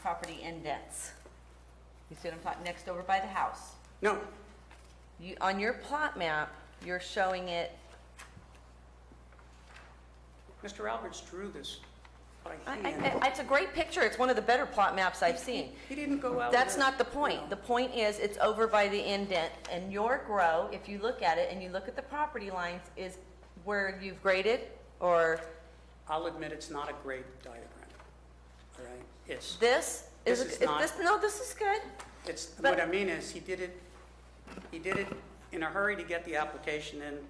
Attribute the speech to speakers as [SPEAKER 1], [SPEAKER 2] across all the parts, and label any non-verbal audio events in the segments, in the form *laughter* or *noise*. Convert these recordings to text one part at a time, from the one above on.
[SPEAKER 1] property indents. You see what I'm talking, next over by the house.
[SPEAKER 2] No,
[SPEAKER 1] You, on your plot map, you're showing it,
[SPEAKER 2] Mr. Alberts drew this by
[SPEAKER 1] I,
[SPEAKER 2] hand.
[SPEAKER 1] I, it's a great picture, it's one of the better plot maps I've seen.
[SPEAKER 2] He didn't go out.
[SPEAKER 1] That's
[SPEAKER 2] with-
[SPEAKER 1] not the point. The point is, it's over by the indent, and your grow, if you look at it and you look at the property lines, is where you've graded, or
[SPEAKER 2] I'll admit it's not a great diagram, all right? It's,
[SPEAKER 1] this?
[SPEAKER 2] This is
[SPEAKER 1] it-
[SPEAKER 2] not-
[SPEAKER 1] this- No, this is good.
[SPEAKER 2] it's,
[SPEAKER 1] But-
[SPEAKER 2] what I mean is, he did it, he did it in a hurry to get the application in.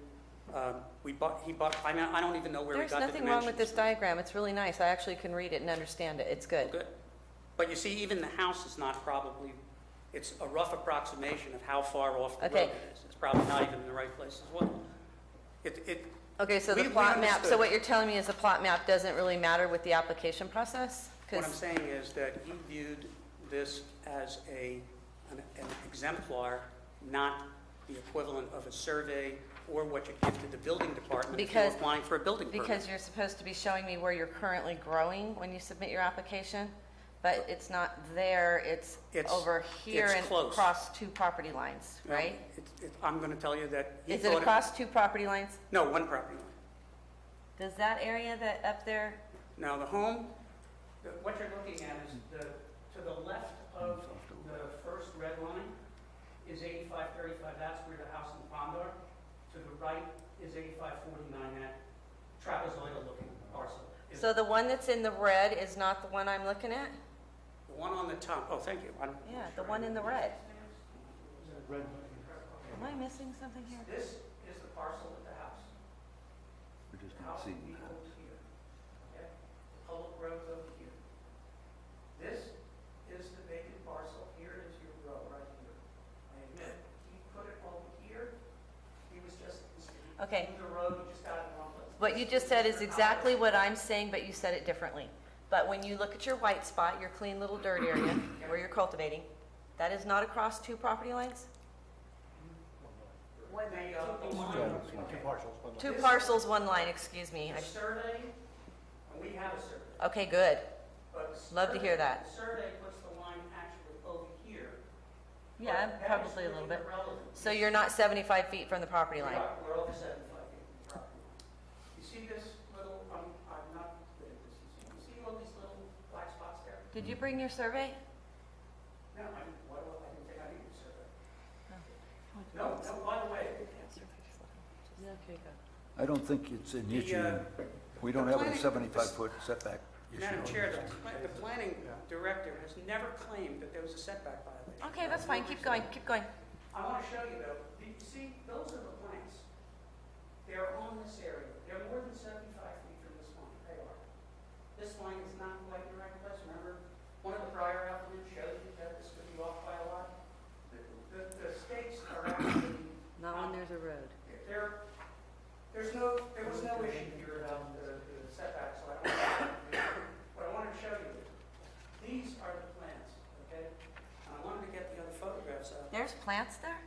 [SPEAKER 2] Um, We bought, he bought, I mean, I don't even know where we
[SPEAKER 1] There's
[SPEAKER 2] got the dimensions.
[SPEAKER 1] nothing wrong with this diagram. It's really nice. I actually can read it and understand it. It's good.
[SPEAKER 2] Good. But you see, even the house is not probably, it's a rough approximation of how far off the road
[SPEAKER 1] Okay.
[SPEAKER 2] it is. It's probably not even in the right place as well. It, it,
[SPEAKER 1] Okay, so
[SPEAKER 2] We-
[SPEAKER 1] the
[SPEAKER 2] we
[SPEAKER 1] plot map, so
[SPEAKER 2] understood.
[SPEAKER 1] what you're telling me is the plot map doesn't really matter with the application process?
[SPEAKER 2] What I'm
[SPEAKER 1] Because,
[SPEAKER 2] saying is that he viewed this as a, an an exemplar, not the equivalent of a survey or what you give to the building department if you're
[SPEAKER 1] Because-
[SPEAKER 2] applying for a building permit.
[SPEAKER 1] because you're supposed to be showing me where you're currently growing when you submit your application, but it's not there, it's
[SPEAKER 2] It's-
[SPEAKER 1] over here
[SPEAKER 2] it's
[SPEAKER 1] and
[SPEAKER 2] close.
[SPEAKER 1] across two property lines,
[SPEAKER 2] Now,
[SPEAKER 1] right?
[SPEAKER 2] it- it- I'm going to tell you that he
[SPEAKER 1] Is it
[SPEAKER 2] thought, it-
[SPEAKER 1] across two property lines?
[SPEAKER 2] no, one property line.
[SPEAKER 1] Does that area that up there,
[SPEAKER 2] Now, the home, the- what you're looking at is the, to the left of the first red line is 8535, that's where the house and pond are. To the right is 8549, that trapezoidal-looking parcel. Is-
[SPEAKER 1] so the one that's in the red is not the one I'm looking at?
[SPEAKER 2] The one on the top, oh, thank you. I'm-
[SPEAKER 1] Yeah, the one in the red. Am I missing something here?
[SPEAKER 2] This is the parcel of the house.
[SPEAKER 3] We're just
[SPEAKER 2] The
[SPEAKER 3] not
[SPEAKER 2] house
[SPEAKER 3] seeing
[SPEAKER 2] would be
[SPEAKER 3] that.
[SPEAKER 2] over here, okay? The public road's over here. This is the vacant parcel, here is your road, right here. I admit, he put it over here, he was just,
[SPEAKER 1] Okay.
[SPEAKER 2] the road, he just got it wrong. place.
[SPEAKER 1] What you just said is exactly what I'm saying, but you said it differently. But when you look at your white spot, your clean little dirt area
[SPEAKER 2] *coughs*
[SPEAKER 1] where you're cultivating, that is not across two property lines?
[SPEAKER 2] When they, uh, the line- okay.
[SPEAKER 1] Two parcels, one line, excuse me.
[SPEAKER 2] The survey, and we have a survey.
[SPEAKER 1] I- Okay, good.
[SPEAKER 2] but the
[SPEAKER 1] Love to hear
[SPEAKER 2] survey-
[SPEAKER 1] that.
[SPEAKER 2] the Survey puts the line actually over here. But that is
[SPEAKER 1] Probably a little
[SPEAKER 2] really
[SPEAKER 1] bit.
[SPEAKER 2] irrelevant.
[SPEAKER 1] So you're not 75 feet from the property line?
[SPEAKER 2] Right, We're over seventy-five feet from the property line. You see this little, um, I'm not good at this, you see- you see all these little black spots there?
[SPEAKER 1] Did you bring your survey?
[SPEAKER 2] No, I didn't, why do I, I didn't think I needed a survey. No, no, by the way,
[SPEAKER 3] I don't think it's an
[SPEAKER 2] The,
[SPEAKER 3] issue.
[SPEAKER 2] uh,
[SPEAKER 3] We don't
[SPEAKER 2] the
[SPEAKER 3] have a
[SPEAKER 2] planning-
[SPEAKER 3] 75-foot setback issue.
[SPEAKER 2] Madam Chair, the, pla- the planning director has never claimed that there was a setback violation.
[SPEAKER 1] Okay, that's fine, keep going, keep going.
[SPEAKER 2] I want to show you though, Do you see, those are the plants. They're on this area, they're more than seventy-five feet from this line, they are. This line is not quite in the right place, remember, one of the prior applicants showed you that this could be off by a lot. The, the, the stakes are actually, Not when
[SPEAKER 1] there's a road.
[SPEAKER 2] there, there's no, there was no issue here about the the setback, so I don't, what I wanted to show you, these are the plants, okay? And I wanted to get the other photographs out.
[SPEAKER 1] There's plants there?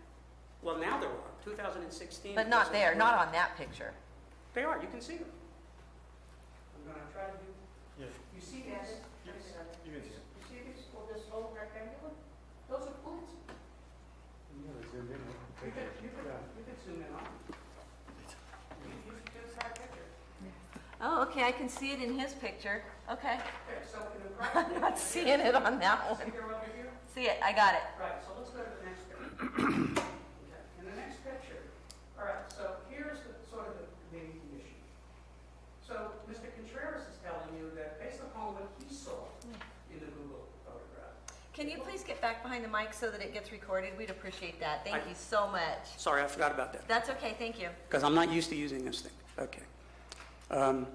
[SPEAKER 2] Well, now there are, 2016.
[SPEAKER 1] But not there, not on that picture.
[SPEAKER 2] They are, you can see them. I'm going to try to do,
[SPEAKER 4] Yes,
[SPEAKER 2] you see this? This, uh,
[SPEAKER 4] you can see it.
[SPEAKER 2] You see this, well, this little rectangular? Those are plants. You could, you could, you could zoom in on them. You you should do a side picture.
[SPEAKER 1] Oh, okay, I can see it in his picture. Okay.
[SPEAKER 2] Okay, so
[SPEAKER 1] *laughs*
[SPEAKER 2] in the
[SPEAKER 1] I'm not
[SPEAKER 2] property,
[SPEAKER 1] seeing it on that
[SPEAKER 2] see
[SPEAKER 1] one.
[SPEAKER 2] here over here?
[SPEAKER 1] See it, I got it.
[SPEAKER 2] Right, so let's go to the next picture. Okay, In the next picture, all right, so here's the, sort of the main condition. So Mr. Contreras is telling you that based upon what he saw in the Google photograph.
[SPEAKER 1] Can you please get back behind the mic so that it gets recorded? We'd appreciate that. Thank
[SPEAKER 2] I-
[SPEAKER 1] you so much.
[SPEAKER 2] Sorry, I forgot about that.
[SPEAKER 1] That's okay, thank you.
[SPEAKER 2] because I'm not used to using this thing. Okay. Um,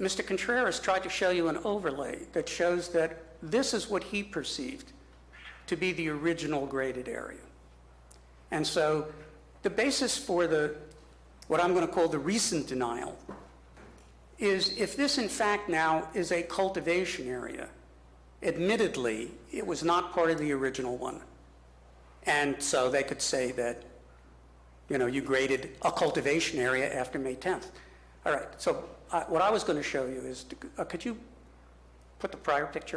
[SPEAKER 2] Mr. Contreras tried to show you an overlay that shows that this is what he perceived to be the original graded area. And so the basis for the, what I'm going to call the recent denial, is if this in fact now is a cultivation area, admittedly, it was not part of the original one. And so they could say that you know, you graded a cultivation area after May 10th. All right, so uh, what I was going to show you is, uh, could you put the prior picture